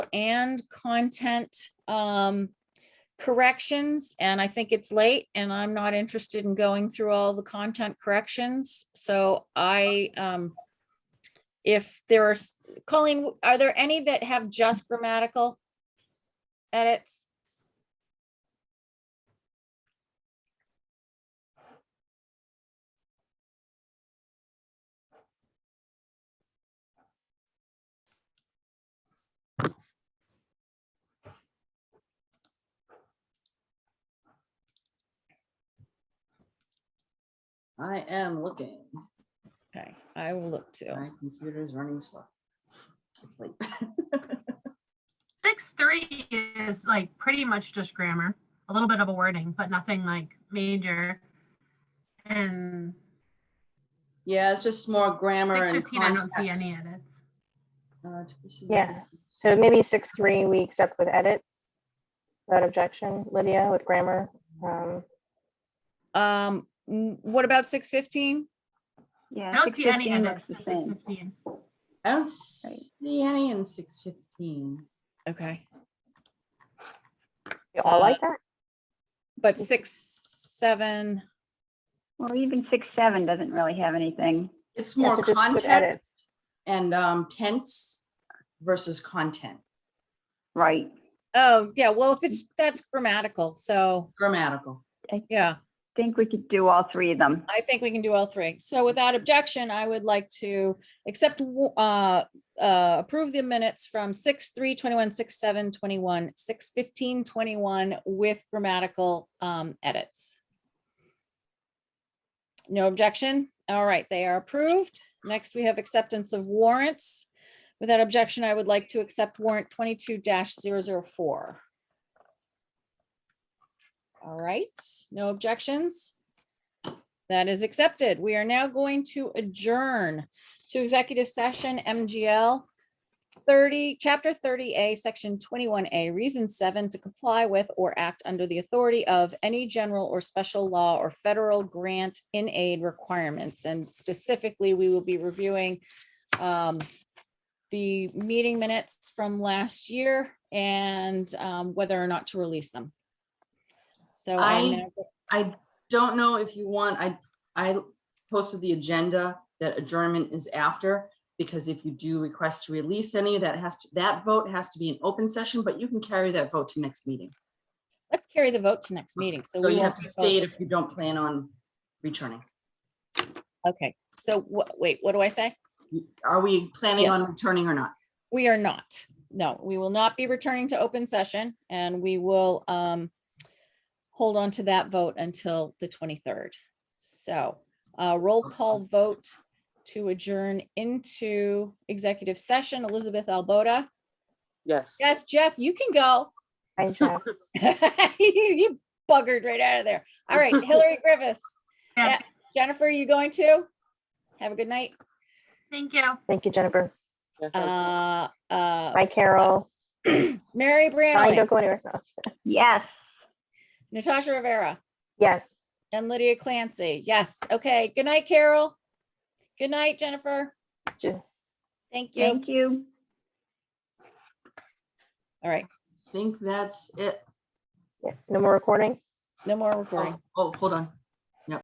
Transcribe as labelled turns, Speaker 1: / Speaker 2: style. Speaker 1: and content um, corrections, and I think it's late, and I'm not interested in going through all the content corrections, so I, um, if there are, s- Colleen, are there any that have just grammatical edits?
Speaker 2: I am looking.
Speaker 1: Okay, I will look too.
Speaker 2: My computer's running slow. It's like,
Speaker 3: Six three is like pretty much just grammar, a little bit of a wording, but nothing like major. And
Speaker 2: yeah, it's just more grammar
Speaker 3: six
Speaker 2: and
Speaker 3: fifteen, I don't see
Speaker 2: context.
Speaker 3: any edits.
Speaker 2: Uh, to proceed with
Speaker 4: Yeah,
Speaker 2: the-
Speaker 4: so maybe six, three, we accept with edits. Without objection, Lydia with grammar. Um,
Speaker 1: Um, n- what about six fifteen?
Speaker 3: I
Speaker 5: Yeah.
Speaker 3: don't see any
Speaker 5: 6:15
Speaker 3: edits
Speaker 5: looks
Speaker 3: to
Speaker 5: the
Speaker 3: six
Speaker 5: same.
Speaker 3: fifteen.
Speaker 2: I don't see any in six fifteen.
Speaker 1: Okay,
Speaker 4: You all like that?
Speaker 1: but six, seven,
Speaker 5: Well, even six, seven doesn't really have anything.
Speaker 2: It's
Speaker 4: Yeah,
Speaker 2: more
Speaker 4: so just with
Speaker 2: context
Speaker 4: edits.
Speaker 2: and um, tense versus content,
Speaker 5: Right.
Speaker 1: oh, yeah, well, if it's, that's grammatical, so,
Speaker 2: grammatical.
Speaker 1: yeah.
Speaker 5: Think we could do all three of them.
Speaker 1: I think we can do all three. So without objection, I would like to accept, uh, uh, approve the minutes from six, three, twenty-one, six, seven, twenty-one, six, fifteen, twenty-one with grammatical, um, edits. No objection. All right, they are approved. Next, we have acceptance of warrants. Without objection, I would like to accept warrant twenty-two 4 All right, no objections. That is accepted. We are now going to adjourn to executive session MGL thirty, chapter thirty A, section twenty-one A, reason seven, to comply with or act under the authority of any general or special law or federal grant in aid requirements. And specifically, we will be reviewing um, the meeting minutes from last year and um, whether or not to release them. So
Speaker 2: I-
Speaker 1: I'm now
Speaker 2: I don't know if you want, I, I posted the agenda that adjournment is after. Because if you do request to release any, that has, to that vote has to be an open session, but you can carry that vote to next meeting.
Speaker 1: Let's carry the vote to next meeting.
Speaker 2: So
Speaker 1: we
Speaker 2: you
Speaker 1: won't
Speaker 2: have to
Speaker 1: be
Speaker 2: state
Speaker 1: voting.
Speaker 2: if you don't plan on returning.
Speaker 1: Okay, so wha- wait, what do I say?
Speaker 2: Are we planning
Speaker 1: Yeah.
Speaker 2: on returning or not?
Speaker 1: We are not. No, we will not be returning to open session and we will um hold on to that vote until the 23rd. So uh roll call vote to adjourn into executive session. Elizabeth Albota.
Speaker 6: Yes.
Speaker 1: Yes, Jeff, you can go.
Speaker 4: Fine, Jeff.
Speaker 1: You buggered right out of there. All right, Hillary Griffiths.
Speaker 3: Yeah,
Speaker 1: Yeah. Jennifer, you going to? Have a good night.
Speaker 3: thank you.
Speaker 4: Thank you, Jennifer.
Speaker 6: Yeah, that's-
Speaker 1: Uh, uh,
Speaker 4: Bye, Carol.
Speaker 1: Mary
Speaker 4: Bye,
Speaker 1: Branley,
Speaker 4: don't go anywhere. No.
Speaker 5: Yes.
Speaker 1: Natasha Rivera,
Speaker 4: Yes.
Speaker 1: and Lydia Clancy. Yes, okay. Good night, Carol. Good night, Jennifer.
Speaker 4: Ju-
Speaker 1: Thank you.
Speaker 5: Thank you.
Speaker 1: All right,
Speaker 2: Think that's it.
Speaker 4: Yeah. No more recording?
Speaker 1: no more recording.
Speaker 2: Oh, hold on.